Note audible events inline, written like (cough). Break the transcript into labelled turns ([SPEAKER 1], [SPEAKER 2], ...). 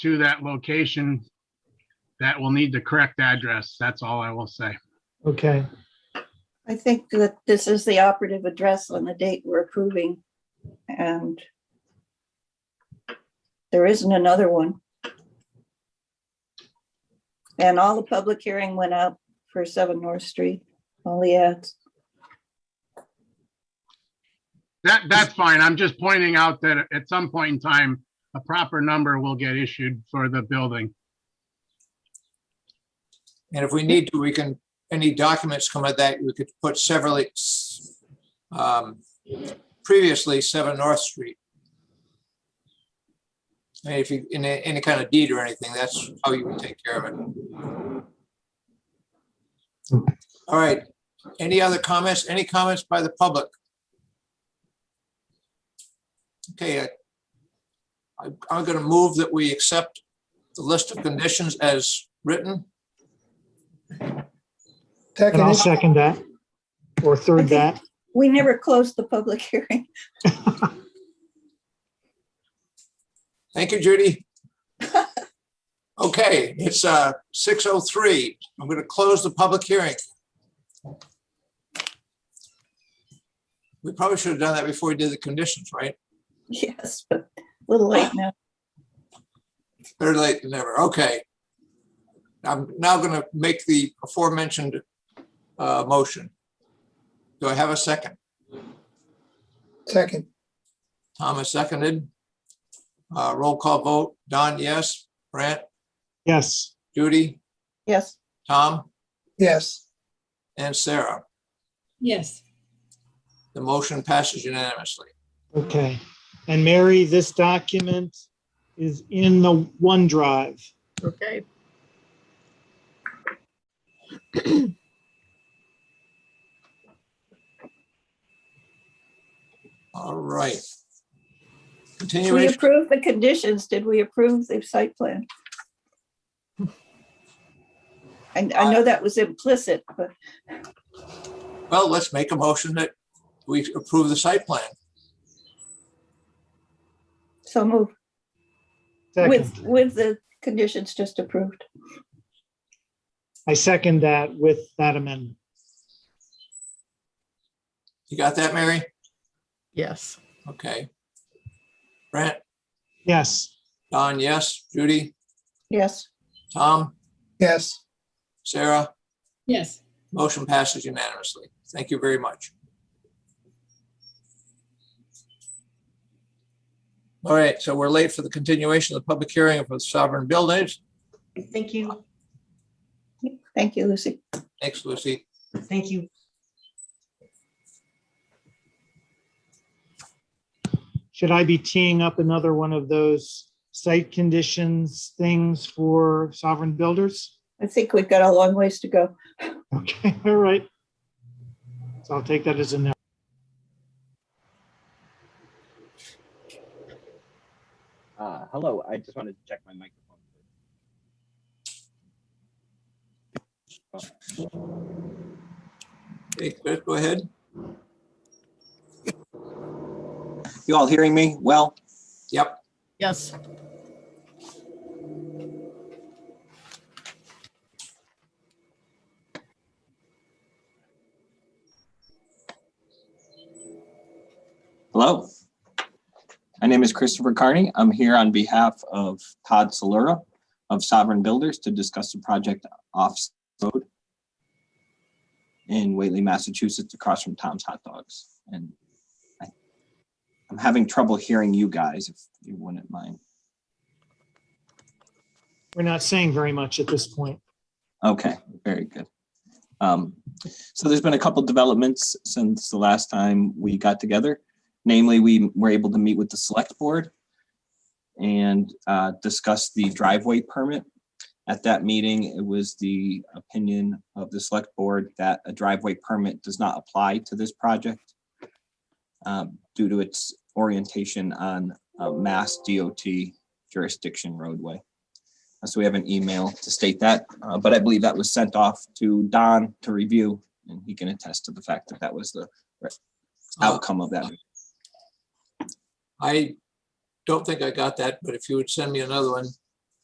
[SPEAKER 1] to that location that will need the correct address. That's all I will say.
[SPEAKER 2] Okay,
[SPEAKER 3] I think that this is the operative address on the date we're approving and there isn't another one. And all the public hearing went out for seven North Street, all the ads.
[SPEAKER 1] That, that's fine. I'm just pointing out that at some point in time, a proper number will get issued for the building.
[SPEAKER 4] And if we need to, we can, any documents come at that, we could put severally, um, previously seven North Street. And if you, in a- any kind of deed or anything, that's how you would take care of it. All right, any other comments? Any comments by the public? Okay, I- I'm, I'm gonna move that we accept the list of conditions as written.
[SPEAKER 2] and
[SPEAKER 5] Second,
[SPEAKER 2] I'll
[SPEAKER 5] it.
[SPEAKER 2] second that, or third that.
[SPEAKER 3] We never closed the public (laughs) hearing.
[SPEAKER 4] Thank you, Judy. Okay, it's uh, 6:03. I'm going to close the public hearing. We probably should have done that before we did the conditions, right?
[SPEAKER 3] Yes, but a little late now.
[SPEAKER 4] Better late than never. Okay. I'm now going to make the aforementioned uh, motion. Do I have a second?
[SPEAKER 5] second,
[SPEAKER 4] Thomas seconded. Uh, Roll call vote. Don, yes. Brant,
[SPEAKER 2] Yes,
[SPEAKER 4] Judy,
[SPEAKER 3] Yes,
[SPEAKER 4] Tom,
[SPEAKER 5] yes,
[SPEAKER 4] and Sarah.
[SPEAKER 6] Yes,
[SPEAKER 4] The motion passes unanimously.
[SPEAKER 2] okay. And Mary, this document is in the OneDrive.
[SPEAKER 6] okay.
[SPEAKER 4] All right.
[SPEAKER 3] we
[SPEAKER 4] Continuation,
[SPEAKER 3] approved the conditions. Did we approve the site plan? And I know that was implicit, but
[SPEAKER 4] well, let's make a motion that we approve the site plan.
[SPEAKER 3] so move.
[SPEAKER 2] Second,
[SPEAKER 3] With, with the conditions just approved.
[SPEAKER 2] I second that with that amendment.
[SPEAKER 4] You got that, Mary?
[SPEAKER 6] Yes.
[SPEAKER 4] Okay. Brent,
[SPEAKER 2] Yes,
[SPEAKER 4] Don, yes. Judy,
[SPEAKER 3] Yes,
[SPEAKER 4] Tom,
[SPEAKER 5] yes.
[SPEAKER 4] Sarah,
[SPEAKER 6] Yes,
[SPEAKER 4] motion passes unanimously. Thank you very much. All right, so we're late for the continuation of the public hearing for the sovereign buildings.
[SPEAKER 7] Thank you,
[SPEAKER 3] thank you, Lucy.
[SPEAKER 4] Thanks, Lucy.
[SPEAKER 7] thank you.
[SPEAKER 2] should I be teeing up another one of those site conditions things for sovereign builders?
[SPEAKER 3] I think we've got a long ways to go.
[SPEAKER 2] Okay, (laughs) all right. So I'll take that as a no.
[SPEAKER 8] Uh, hello, I just wanted to check my microphone.
[SPEAKER 4] Okay, Chris, go ahead.
[SPEAKER 9] You all hearing me well?
[SPEAKER 4] Yep,
[SPEAKER 6] yes,
[SPEAKER 9] Hello? My name is Christopher Carney. I'm here on behalf of Todd Solera of Sovereign Builders to discuss the project off road in Whately, Massachusetts, across from Tom's Hot Dogs. And I- I'm having trouble hearing you guys, if you wouldn't mind.
[SPEAKER 2] We're not saying very much at this point.
[SPEAKER 9] Okay, very good. Um, So there's been a couple developments since the last time we got together. Namely, we were able to meet with the select board and uh, discuss the driveway permit. At that meeting, it was the opinion of the select board that a driveway permit does not apply to this project um, due to its orientation on uh, Mass DOT jurisdiction roadway. Uh, So we have an email to state that, uh, but I believe that was sent off to Don to review, and he can attest to the fact that that was the re-
[SPEAKER 4] Oh.
[SPEAKER 9] outcome of that.
[SPEAKER 4] I don't think I got that, but if you would send me another one,